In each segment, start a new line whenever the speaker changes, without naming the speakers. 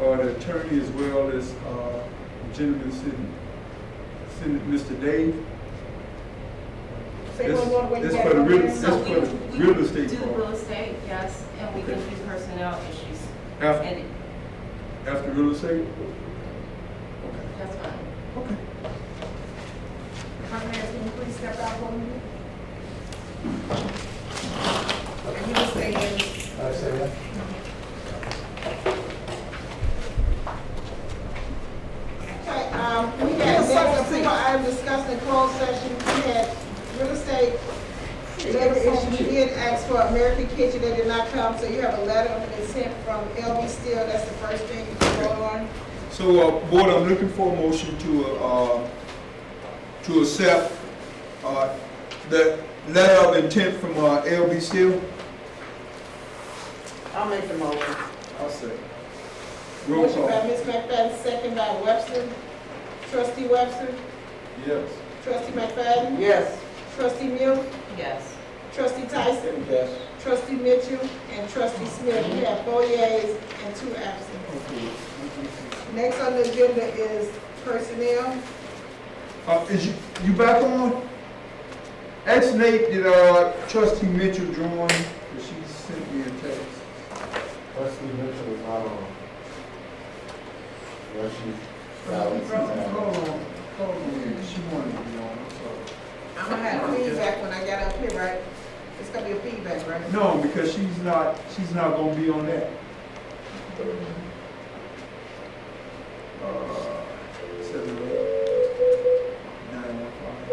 or the attorney as well as, uh, gentleman sitting, sitting, Mr. Dave.
Say one more way.
This-
you
this for the
got
real-
it.
this-
So
That's
we,
for the
we do
real estate part.
real estate, yes, and we can
Okay.
do personnel issues.
After,
And
after real estate?
that's fine.
Okay.
Conrad, can you please step out for me? And you will stay in.
I say that.
Okay, um, we had, that was people I discussed in closed session, we had real estate labor issues, we did ask for American Kitchen, they did not come, so you have a letter of consent from LB Steel, that's the first thing you can go on.
So, uh, board, I'm looking for a motion to, uh, to accept, uh, the letter of intent from, uh, LB Steel.
I'll make the motion.
I'll say. Roll
Motion by
call.
Ms. McFadden, second by Webster. Trustee Webster,
Yes.
trustee McFadden,
Yes.
trustee Mills,
Yes.
trustee Tyson,
Yes.
trustee Mitchell, and trustee Smith. We have four yeas and two absent.
Okay.
Next on the agenda is personnel.
Uh, is you, you back on? Ask Nate, did, uh, trustee Mitchell join? 'Cause she sent me a text.
Trustee Mitchell is not on. Well, she's out.
Hold on, hold on, she wanted to be on, I'm
I'm gonna have feedback when I get up here, right? It's gonna be a feedback, right?
sorry. No, because she's not, she's not gonna be on that. Uh, seven, eight, nine, one, five,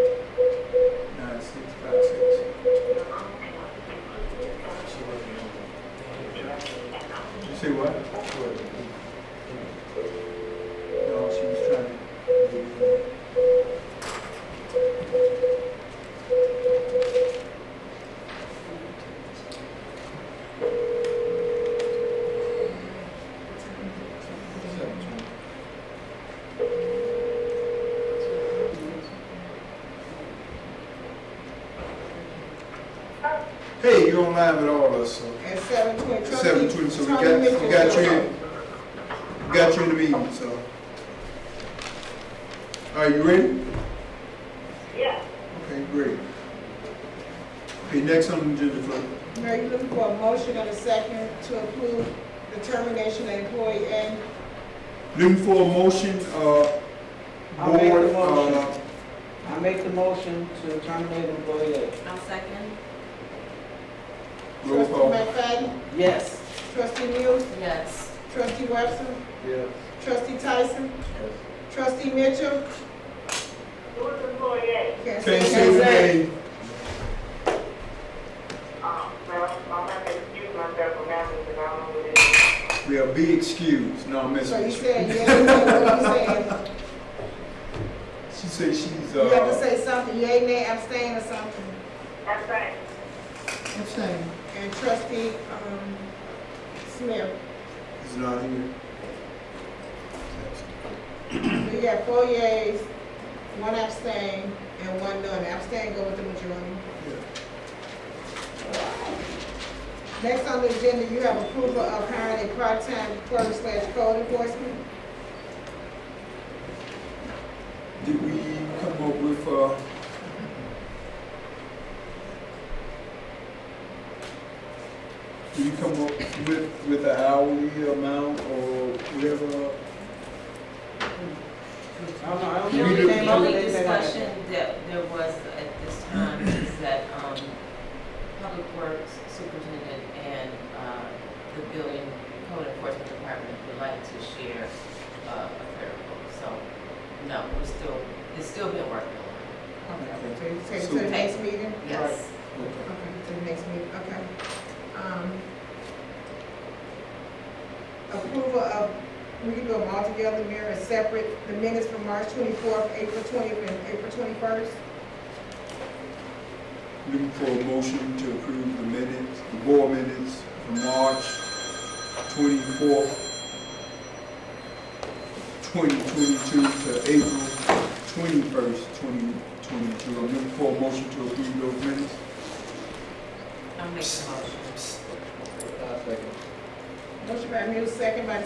nine, six, five, six. You say what? No, she was trying to. Hey, you don't line at all, us, so.
At seven twenty.
Seven twenty, so we got, we got you in, we got you in the meeting, so. Are you ready? Yeah. Okay, great. Okay, next on the agenda, Flo.
Mayor, you looking for a motion and a second to approve the termination of employee and
Looking for a motion, uh,
I'll make the
board,
motion.
uh,
I make the motion to terminate employee A.
I'll second.
roll
trustee
call.
McFadden,
Yes.
trustee Mills,
Yes.
trustee Webster,
Yes.
trustee Tyson,
Yes.
trustee Mitchell.
Who's employee A?
Can't
Can't say
say the
that.
name.
Um, well, I'm not gonna excuse myself from having to go on with it.
Well, be excused, no, I'm
So you
messing.
said, yes, you said what you said.
She says she's,
You have to
uh,
say something, yea, nay, abstain or something.
That's right.
Abstain. And trustee, um, Smith.
is not here.
We got four yeas, one abstain, and one none. Abstain go with the majority. Next on the agenda, you have approval of hiring a part-time clerk slash code enforcement.
Did we come up with, uh, did you come up with, with an hourly amount or whatever?
I don't know, I don't
We
The
know
only,
do-
anything
the only
related to that.
discussion that there was at this time is that, um, Public Works Superintendent and, uh, the building code enforcement department would like to share, uh, a clerical, so, no, we're still, it's still being worked on.
Okay, Take it to the next meeting?
Yes.
Okay.
Okay, to the next meeting, okay. Um, Approval of, we can do them all together, Mayor, and separate the minutes from March twenty-fourth, April twentieth, and April twenty-first.
Looking for a motion to approve the minutes, the board minutes for March twenty-fourth, twenty twenty-two to April twenty-first, twenty twenty-two. I'm looking for a motion to approve those minutes.
I'll make the motion.
I second.
Motion by Mills, second by